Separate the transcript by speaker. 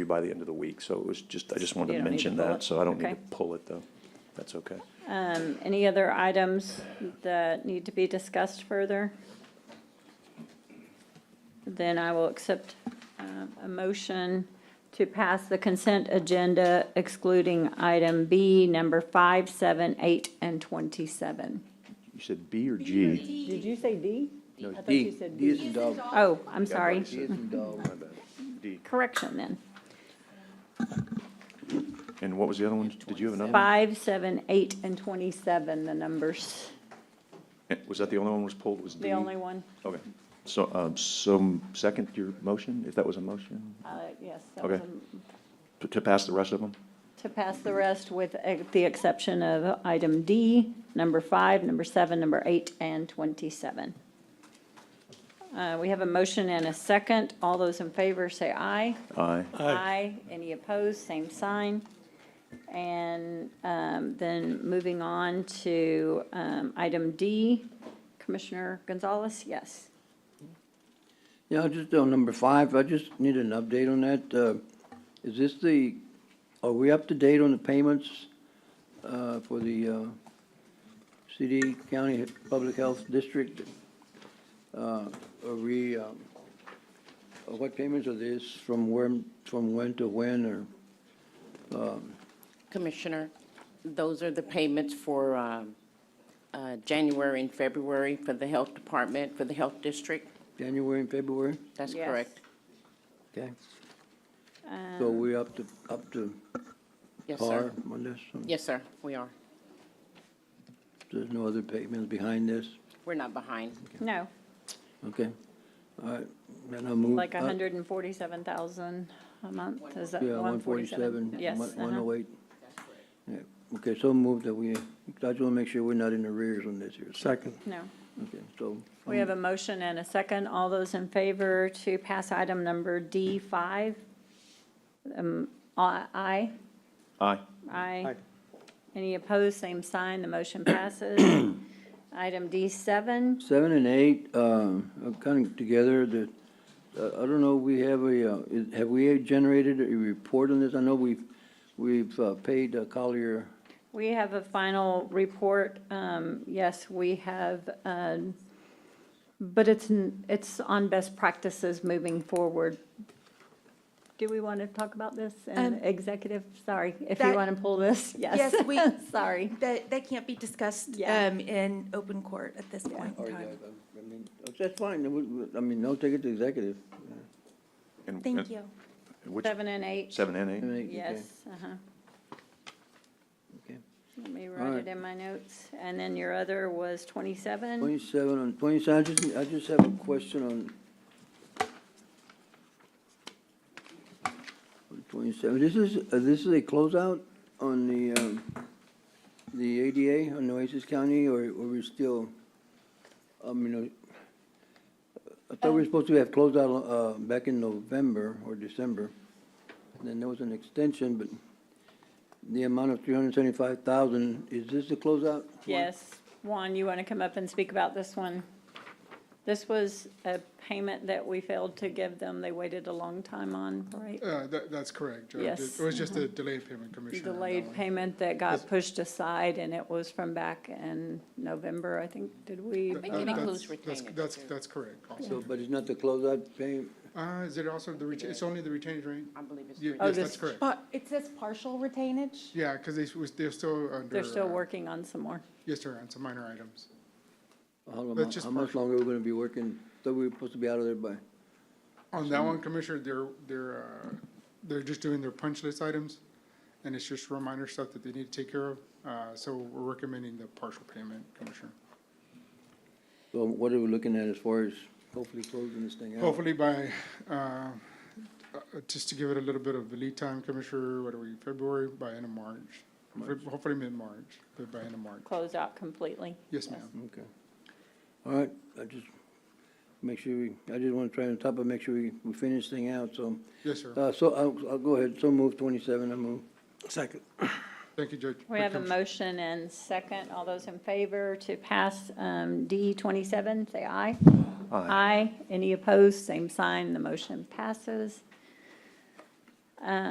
Speaker 1: you by the end of the week, so it was just, I just wanted
Speaker 2: You
Speaker 1: to
Speaker 2: don't need to
Speaker 1: mention
Speaker 2: pull
Speaker 1: that,
Speaker 2: it.
Speaker 1: so I don't need
Speaker 2: Okay.
Speaker 1: to pull it, though. That's okay.
Speaker 2: Um, Any other items that need to be discussed further? Then I will accept um, a motion to pass the consent agenda excluding item B, number five, seven, eight, and 27.
Speaker 1: You said B or G?
Speaker 3: Did you say D?
Speaker 1: No,
Speaker 3: I
Speaker 1: it's
Speaker 3: thought you said D.
Speaker 4: is in dog.
Speaker 2: Oh, I'm sorry.
Speaker 4: D is in dog.
Speaker 1: My bad. D.
Speaker 2: Correction then.
Speaker 1: And what was the other one? Did you have another? one?
Speaker 2: Five, seven, eight, and 27, the numbers.
Speaker 1: Eh, Was that the only one was pulled, was D?
Speaker 2: The only one,
Speaker 1: Okay. So, um, so second your motion, if that was a motion,
Speaker 2: uh, yes, that was
Speaker 1: Okay.
Speaker 2: a
Speaker 1: to, to pass the rest of them?
Speaker 2: To pass the rest with uh, the exception of item D, number five, number seven, number eight, and 27. Uh, We have a motion and a second. All those in favor say aye.
Speaker 1: Aye.
Speaker 2: Aye. Any opposed, same sign. And um, then moving on to um, item D, Commissioner Gonzalez, yes.
Speaker 4: Yeah, just on number five, I just need an update on that. Uh, Is this the, are we up to date on the payments uh, for the uh, city, county, public health district? Uh, Are we, um, uh, what payments are these, from when, from when to when, or?
Speaker 5: Commissioner, those are the payments for um, uh, January and February for the Health Department, for the Health District.
Speaker 4: January and February?
Speaker 5: That's
Speaker 2: Yes.
Speaker 5: correct.
Speaker 4: Okay. So
Speaker 2: Um,
Speaker 4: we up to, up to
Speaker 5: Yes,
Speaker 4: par
Speaker 5: sir.
Speaker 4: on this?
Speaker 5: Yes, sir, we are.
Speaker 4: There's no other payments behind this?
Speaker 5: We're not behind.
Speaker 2: No,
Speaker 4: Okay, all right, then I'll move.
Speaker 2: like
Speaker 4: uh,
Speaker 2: 147,000 a month, is that
Speaker 4: Yeah,
Speaker 2: 147?
Speaker 4: one forty-seven.
Speaker 2: Yes.
Speaker 4: One
Speaker 2: uh-huh.
Speaker 4: oh eight. Okay, so move that we, I just want to make sure we're not in arrears on this here. Second.
Speaker 2: No.
Speaker 4: Okay, so.
Speaker 2: We have a motion and a second. All those in favor to pass item number D5? Um, a- Aye?
Speaker 1: Aye.
Speaker 2: Aye. Any opposed, same sign, the motion passes. Item D7,
Speaker 4: Seven and eight, um, are kind of together, the, uh, I don't know, we have a, uh, is- have we generated a report on this? I know we've, we've uh, paid uh, Collier,
Speaker 2: we have a final report. Um, Yes, we have, um, but it's, n- it's on best practices moving forward. Do we want to talk about this in
Speaker 6: Um,
Speaker 2: executive? Sorry, if you
Speaker 6: that-
Speaker 2: want to pull this, yes.
Speaker 6: Yes, we-
Speaker 2: Sorry.
Speaker 6: That, that can't be discussed
Speaker 2: Yeah.
Speaker 6: um, in open court at this point
Speaker 4: or,
Speaker 6: in
Speaker 4: uh,
Speaker 6: time.
Speaker 4: I mean, that's fine, we- we- I mean, no, take it to executive.
Speaker 1: And-
Speaker 6: Thank
Speaker 1: and
Speaker 6: you.
Speaker 1: Which,
Speaker 2: Seven and eight,
Speaker 1: seven and
Speaker 4: Seven
Speaker 1: eight?
Speaker 4: and eight, okay.
Speaker 2: yes, uh-huh.
Speaker 4: Okay.
Speaker 2: Let me write
Speaker 4: right.
Speaker 2: it in my notes. And then your other was twenty-seven?
Speaker 4: Twenty-seven on, twenty-seven, I just, I just have a question on on twenty-seven, this is, uh, this is a closeout on the, um, the ADA on Oasis County, or, or we're still, I mean, uh, I thought we were supposed to have closeout, uh, back in November or December, then there was an extension, but the amount of three hundred and seventy-five thousand, is this the closeout?
Speaker 2: Yes. Juan, you want to come up and speak about this one? This was a payment that we failed to give them. They waited a long time on, right?
Speaker 7: Uh, that, that's correct, Judge.
Speaker 2: Yes,
Speaker 7: It was just a delayed payment, Commissioner. on that
Speaker 2: Delayed
Speaker 7: one.
Speaker 2: payment that got pushed aside and it was from back in November, I think, did we?
Speaker 5: think
Speaker 7: Uh,
Speaker 5: it
Speaker 7: that's-
Speaker 5: includes
Speaker 7: that's-
Speaker 5: retainage,
Speaker 7: That's,
Speaker 5: too.
Speaker 7: that's correct. also.
Speaker 4: So, but it's not the closeout payment?
Speaker 7: Uh, is it also the retain, it's only the retained rate?
Speaker 5: I believe it's.
Speaker 7: Ye-
Speaker 5: three.
Speaker 2: Oh,
Speaker 7: Yes,
Speaker 2: this-
Speaker 7: that's correct.
Speaker 6: It says partial retainage?
Speaker 7: Yeah, because they, was- they're still under.
Speaker 2: They're still
Speaker 7: uh,
Speaker 2: working on some more.
Speaker 7: Yes, sir, on some minor items.
Speaker 4: How long,
Speaker 7: That's just
Speaker 4: how much
Speaker 7: partial.
Speaker 4: longer are we gonna be working? Thought we were supposed to be out of there by,
Speaker 7: On that one, Commissioner, they're, they're, uh, they're just doing their punch list items, and it's just reminder stuff that they need to take care of. Uh, so we're recommending the partial payment, Commissioner.
Speaker 4: so what are we looking at as far as hopefully closing this thing out?
Speaker 7: Hopefully by, uh, uh, just to give it a little bit of lead time, Commissioner, what are we, February, by end of March? Hopefully mid-March, but by end of March.
Speaker 2: Closed out completely.
Speaker 7: Yes, ma'am.
Speaker 4: Okay. All right, I just, make sure we, I just wanna try on top of, make sure we, we finish this thing out, so.
Speaker 7: Yes, sir.
Speaker 4: Uh, so I'll, I'll go ahead, so move twenty-seven, I move.
Speaker 8: Second.
Speaker 7: Thank you, Judge.
Speaker 2: We have a
Speaker 7: Commissioner.
Speaker 2: motion and second. All those in favor to pass um, D27, say aye.
Speaker 1: Aye.
Speaker 2: Aye. Any opposed, same sign. The motion passes. Um,